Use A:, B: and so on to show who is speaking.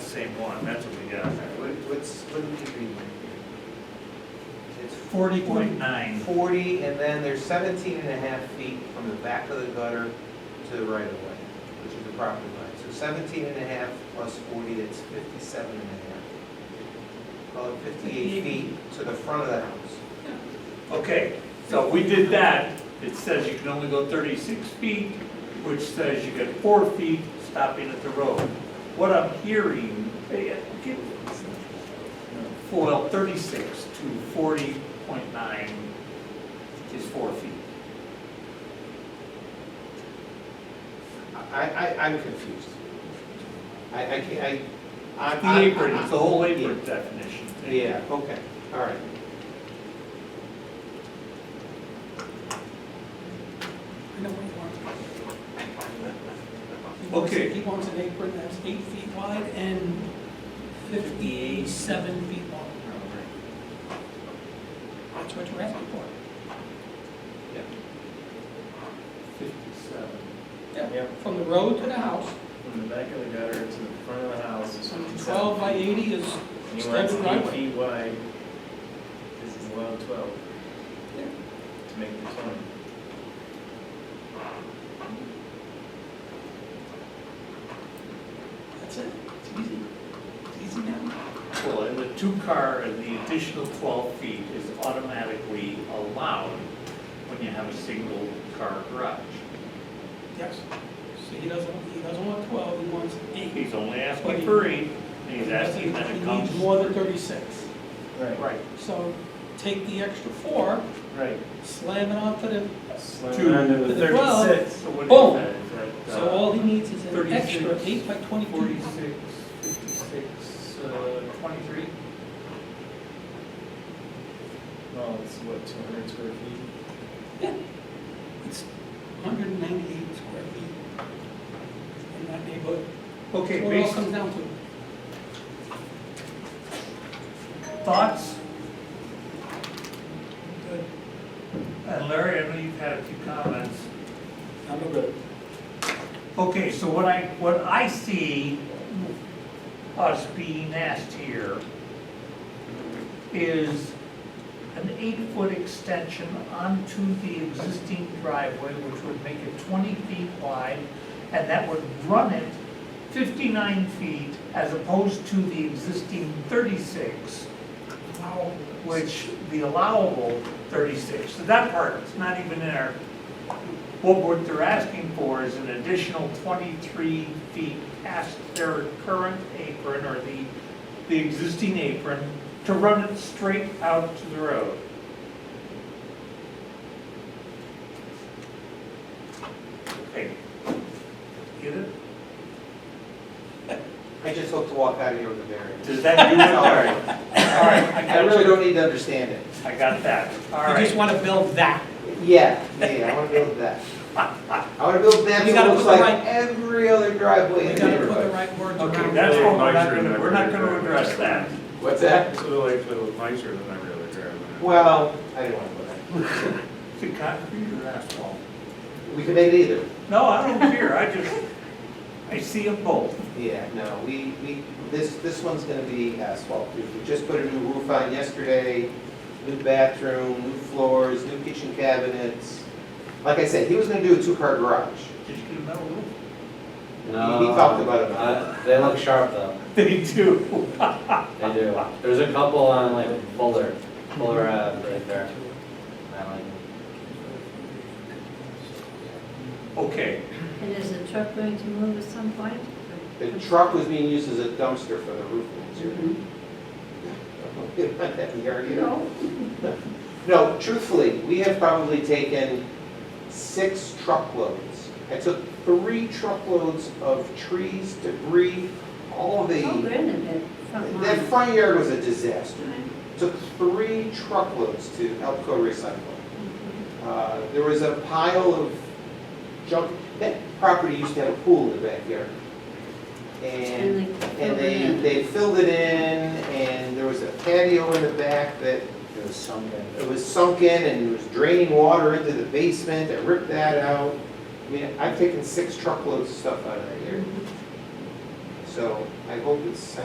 A: same one, that's what we got.
B: What, what's, what did we read? It's
C: Forty point-
A: Forty-nine,
B: forty, and then there's 17 and a half feet from the back of the gutter to the right of way, which is the property line. So 17 and a half plus forty, that's fifty-seven and a half. Call it fifty-eight feet to the front of the house.
A: okay, so we did that, it says you can only go thirty-six feet, which says you get four feet stopping at the road. What I'm hearing, eh, get- well, thirty-six to forty point nine is four feet.
B: I, I, I'm confused. I, I can't, I. I-
A: The
B: I-
A: apron,
B: I-
A: it's the whole apron definition.
B: Yeah, okay, all right.
C: I know what he wants. He wants-
A: Okay.
C: He wants an apron that's eight feet wide and fifty-seven feet long. That's what you're asking for.
A: Fifty-seven.
C: Yeah, from the road to the house,
D: From the back of the gutter to the front of the house is
C: so
D: fifty-seven.
C: twelve by eighty is
D: And he wants
C: standard
D: it eight
C: driveway.
D: feet wide, because he's allowed twelve
C: Yeah.
D: to make the twenty.
C: That's it, it's easy, it's easy now.
A: Well, and the two-car and the additional 12 feet is automatically allowed when you have a single-car garage.
C: Yes. So he doesn't, he doesn't want twelve, he wants eight.
A: He's only asking for eight, and he's asking that it
C: He
A: comes.
C: needs more than thirty-six.
D: Right,
A: Right,
C: So take the extra four,
D: right.
C: slam it onto the,
D: Slam
A: Two.
D: onto
C: To
D: the
C: the twelve.
D: thirty-six.
A: so what
C: Boom.
A: is that? Is that? uh,
C: so all he needs is an
A: 36,
C: extra eight by twenty-two.
A: 46, 56, uh, 23?
D: Well, Oh, it's what, two hundred square feet?
C: It's hundred and ninety-eight square feet in that neighborhood.
A: Okay,
C: That's what it all
A: based,
C: comes down to.
A: thoughts? And Uh, Larry, I know you've had a few comments.
C: I'm good.
A: Okay, so what I, what I see us being asked here is an eight-foot extension onto the existing driveway, which would make it twenty feet wide, and that would run it fifty-nine feet as opposed to the existing thirty-six, which the allowable thirty-six, so that part is not even in our what, what they're asking for is an additional 23 feet past their current apron or the, the existing apron to run it straight out to the road. Okay. Get it?
B: I just hope to walk out of here with a variance.
A: Does that do it?
B: All
A: All right,
B: right,
A: all right, I
B: I
A: got
B: really
A: you.
B: don't need to understand it.
A: I got that, all
C: You just
A: right.
C: wanna build that.
B: Yeah, yeah, I wanna build that. I wanna build that,
C: We
B: so it
C: gotta
B: looks
C: put the
B: like
C: right-
B: every other
C: We
B: driveway in the
C: gotta put the
B: neighborhood.
C: right words around it.
A: Okay, that's what we're not gonna, we're not gonna address that.
B: What's that?
D: So like little nicer than every other driveway.
B: Well, I didn't wanna put that.
A: Is it concrete or asphalt?
B: We could make it either.
A: No, I don't care, I just, I see them both.
B: Yeah, no, we, we, this, this one's gonna be asphalt. We we just put a new roof on yesterday, new bathroom, new floors, new kitchen cabinets. Like I said, he was gonna do a two-car garage.
A: Did you get a metal roof?
E: No.
B: He- he talked about it.
E: Um, Uh, They look sharp though,
A: They do.
E: they do. There's a couple on like Fuller, Fuller, uh, right there. I like them.
A: Okay,
F: And is the truck going to move at some point?
B: The truck was being used as a dumpster for the roof
C: Mm-hmm.
B: material. We don't want that in the yard either.
F: No.
B: No, truthfully, we have probably taken six truckloads. I took three truckloads of trees, debris, all the.
F: Oh, granted, that front
B: That
F: lawn.
B: front yard was a disaster. Took three truckloads to Elko Recycle. Uh, There was a pile of junk, that property used to have a pool in the backyard. And,
F: And
B: and
F: they filled it
B: they,
F: in.
B: they filled it in, and there was a patio in the back that
E: It was sunken.
B: it was sunken and it was draining water into the basement, I ripped that out. I mean,
F: Mm-hmm.
B: I've taken six truckloads of stuff out of that yard. So I hope it's,